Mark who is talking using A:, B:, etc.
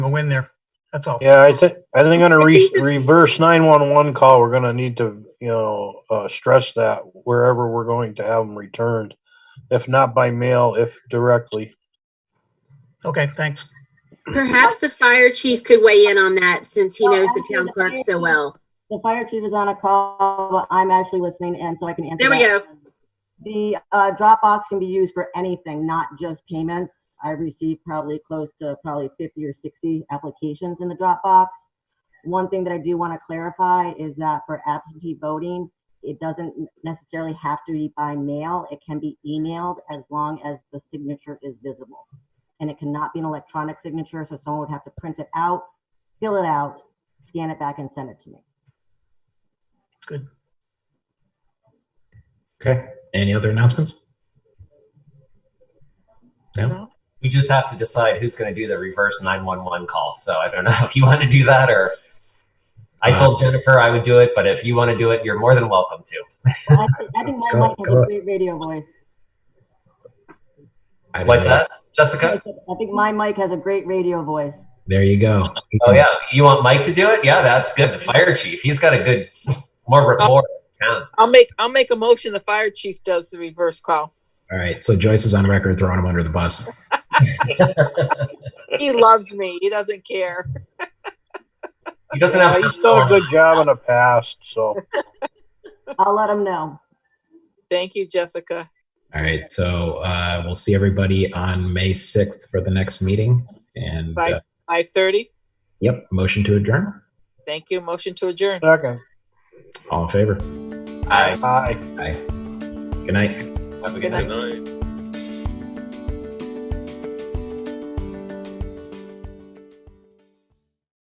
A: win there. That's all.
B: Yeah, I think, I think on a re- reverse nine-one-one call, we're gonna need to, you know, uh, stress that wherever we're going to have them returned. If not by mail, if directly.
A: Okay, thanks.
C: Perhaps the fire chief could weigh in on that since he knows the town clerk so well.
D: The fire chief is on a call, but I'm actually listening in so I can
C: There
D: answer.
C: we
D: that. The uh, Dropbox can be used for anything, not just payments. I've received probably close to probably 50 or 60 applications in the Dropbox. One thing that I do want to clarify is that for absentee voting, it doesn't necessarily have to be by mail. It can be emailed as long as the signature is visible. And it cannot be an electronic signature, so someone would have to print it out, fill it out, scan it back, and send it to me.
A: Good.
E: Okay. Any other announcements? No.
F: We just have to decide who's going to do the reverse 911 call. So I don't know if you want to do that or I told Jennifer I would do it, but if you want to do it, you're more than welcome to.
D: I thi- I think my
E: Go-
D: mic has
E: go.
D: a great radio voice.
E: I
F: What's
E: don't know.
F: that,
D: I
F: Jessica?
D: think my mic has a great radio voice.
E: There you go.
F: Oh, yeah. You want Mike to do it? Yeah, that's good. The fire chief. He's got a good, more rapport in town.
G: I'll make, I'll make a motion. The fire chief does the reverse call.
E: All right. So Joyce is on record throwing him under the bus.
G: He loves me. He doesn't care.
F: He doesn't
B: Yeah,
F: have.
B: He's done a good job in the past, so.
D: I'll let him know.
G: Thank you, Jessica.
E: All right. So uh, we'll see everybody on May 6th for the next meeting. And
G: Bye.
E: uh,
G: Five thirty.
E: yep, motion to adjourn.
G: Thank you. Motion to adjourn.
B: Second,
E: All in favor.
F: All right.
B: aye.
E: Good night.
F: Have a
G: Good
F: good night.
G: night.
H: Good night.